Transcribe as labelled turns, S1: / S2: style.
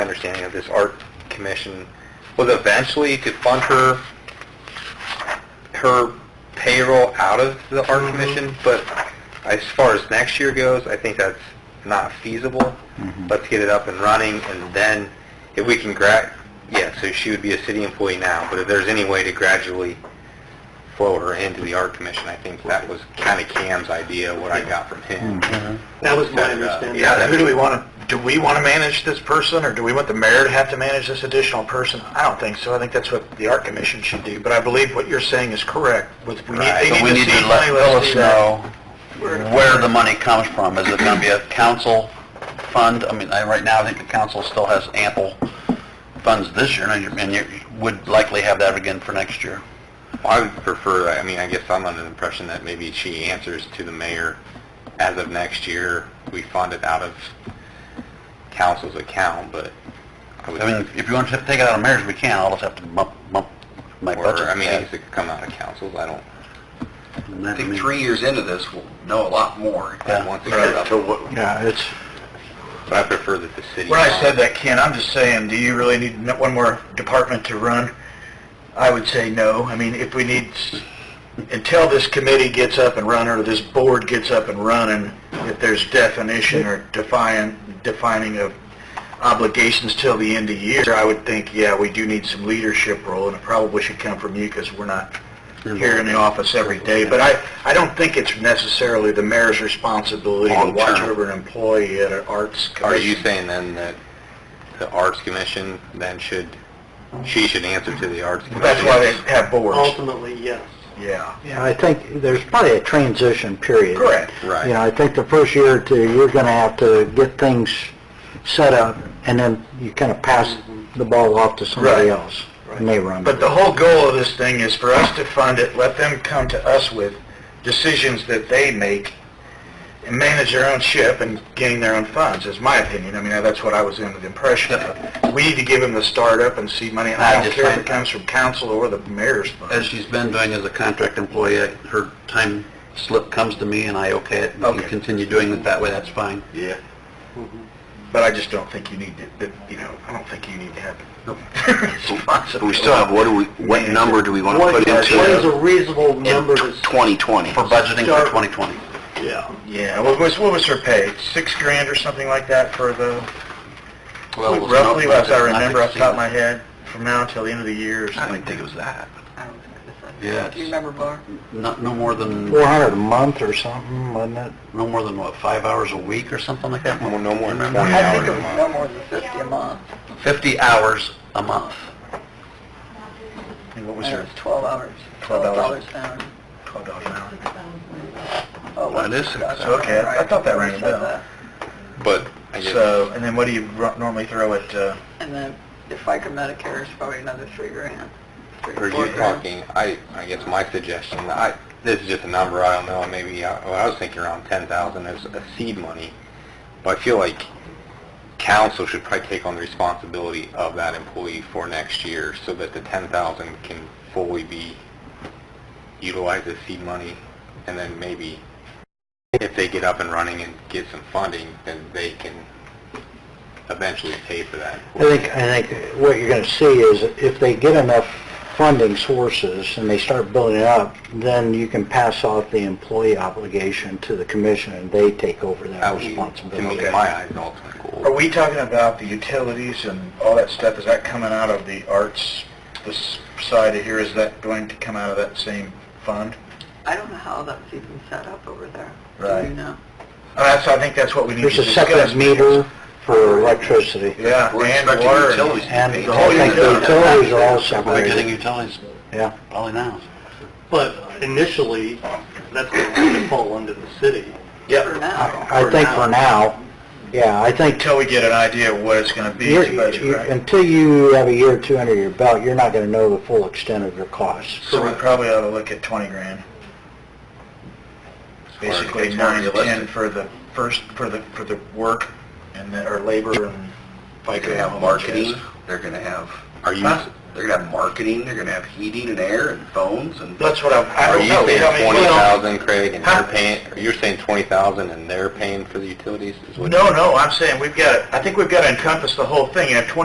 S1: understanding of this art commission was eventually to fund her, her payroll out of the art commission, but as far as next year goes, I think that's not feasible. Let's get it up and running, and then if we can gra, yeah, so she would be a city employee now, but if there's any way to gradually flow her into the art commission, I think that was kind of Cam's idea, what I got from him.
S2: That was my
S1: And, uh,
S2: understanding.
S3: Yeah, who do we want to, do we want to manage this person, or do we want the mayor to have to manage this additional person? I don't think so. I think that's what the art commission should do, but I believe what you're saying is correct. With, we need,
S4: Right,
S3: they
S4: but we
S3: need
S4: need
S3: to see
S4: to
S3: money,
S4: let Phyllis
S3: let's do that.
S4: know where the money comes from. Is it gonna be a council fund? I mean, I, right now, I think the council still has ample funds this year, and you, and you would likely have that again for next year.
S1: I would prefer, I mean, I guess I'm under the impression that maybe she answers to the mayor as of next year. We fund it out of council's account, but I would,
S4: I mean, if you want to take it out of mayor's, we can, I'll just have to bump, bump my budget.
S1: or, I mean, it needs to come out of council's, I don't,
S4: I think
S3: years into this, we'll know a lot more.
S1: I want to get it up,
S3: Yeah, it's,
S1: but I prefer that the city.
S3: When I said that, Ken, I'm just saying, do you really need n- one more department to run? I would say no. I mean, if we need, s- until this committee gets up and running, or this board gets up and running, if there's definition or define, defining of obligations till the end of the year, I would think, yeah, we do need some leadership role, and it probably should come from you, because we're not here in the office every day. But I, I don't think it's necessarily the mayor's responsibility to
S4: Long
S3: watch
S4: term.
S3: over an employee at an arts
S1: Are you
S3: commission.
S1: saying then that the arts commission then should, she should answer to the arts commission?
S3: That's why they have boards.
S2: Ultimately, yes.
S3: Yeah.
S5: Yeah, I think there's probably a transition period.
S3: Correct.
S1: Right.
S5: You know, I think the first year or two, you're gonna have to get things set up, and then you kind of pass the ball off to somebody
S3: Right.
S5: else, and they run.
S3: But the whole goal of this thing is for us to fund it, let them come to us with decisions that they make and manage their own ship and gain their own funds, is my opinion. I mean, that's what I was under the impression of. We need to give them the startup and seed money, and
S4: I
S3: I don't
S4: just
S3: care if
S4: find-
S3: it comes from council or the mayor's
S4: as
S3: fund.
S4: she's been doing as a contract employee, I- her time slip comes to me and I okay it. We
S3: Okay.
S4: can continue doing it that way, that's fine.
S3: Yeah. But I just don't think you need to, that, you know, I don't think you need to have it. We still have, what do we, what number do we want
S2: What what is a reasonable number to... s-
S3: 2020?
S4: For budgeting for
S2: Start-
S4: 2020.
S2: Yeah.
S3: Yeah, what was, what was her pay? Six grand or something like that for the,
S4: Well, it was
S3: roughly,
S4: not
S3: as I
S4: budgeted,
S3: remember off the
S4: not
S3: top of my head, from now until the end of the year or
S4: exceeded.
S3: something like that.
S4: it was that.
S6: I don't think it's that.
S4: Yeah,
S6: Do you
S4: it's
S6: remember, Bar?
S4: not, no more than,
S5: Four hundred a month or something, wasn't it?
S4: no more than what, five hours a week or something like that?
S1: No no more than 20
S4: Remember?
S6: I think
S1: hours
S6: it
S1: a
S6: was
S1: month.
S6: no more than 50 a month.
S4: 50 hours a month.
S3: And what was
S6: And it
S3: her,
S6: was 12 hours,
S3: $12
S6: $12 an hour.
S3: twelve dollars an hour?
S6: Oh,
S4: Well, it is
S6: that's
S4: six
S6: right.
S4: hours.
S3: Okay, I- I thought that rang a
S6: Said
S3: bell.
S6: that.
S1: But I guess,
S3: So, and then what do you ru- normally throw at, uh,
S6: And then the FICA Medicare is probably another three grand. three,
S1: are
S6: four
S1: you
S6: grand.
S1: talking, I, I guess my suggestion, I, this is just a number, I don't know, maybe, I well, I was thinking around 10,000 as a seed money, but I feel like council should probably take on the responsibility of that employee for next year so that the 10,000 can fully be utilized as seed money, and then maybe if they get up and running and get some funding, then they can eventually pay for that.
S5: I think, I think what you're gonna see is if they get enough funding sources and they start building it up, then you can pass off the employee obligation to the commission, and they take over
S1: That
S5: that
S1: would be, to
S5: responsibility.
S1: me, in my eyes, the ultimate goal.
S3: are we talking about the utilities and all that stuff? Is that coming out of the arts, this side of here, is that going to come out of that same fund?
S6: I don't know how that was even set up over there. Do
S3: Right.
S6: you know?
S3: Uh, That's, I think that's what we need to
S5: There's a
S3: discuss.
S5: separate meter for electricity.
S3: Yeah, and water. and-
S5: And
S4: paid.
S5: the whole thing, the utilities are all
S4: We're getting
S5: separated,
S4: utilities
S5: yeah.
S4: probably now.
S2: But initially, that's going to fall under the city.
S6: For
S3: Yep,
S6: now.
S5: I think for now, yeah, I think,
S3: until we get an idea of what it's gonna be,
S5: you're-
S3: it's budget,
S5: you-
S3: right?
S5: until you have a year or two under your belt, you're not gonna know the full extent of your costs.
S3: So we probably ought to look at 20 grand. Basically, nine to 10 for the first, for the, for the work and the, or labor and FICA.
S7: They're gonna have marketing, they're gonna have,
S1: Are you,
S3: Huh?
S7: they're gonna have marketing, they're gonna have heating and air and phones and
S3: That's what I, I
S1: are
S3: don't
S1: you
S3: know. Oh, I
S1: saying
S3: mean,
S1: twenty
S3: well,
S1: thousand, Craig, and
S3: Huh?
S1: they're paying, or you're saying twenty thousand and they're paying for the utilities is what?
S3: No, no, I'm saying we've got, I think we've got to encompass the whole thing. You have 20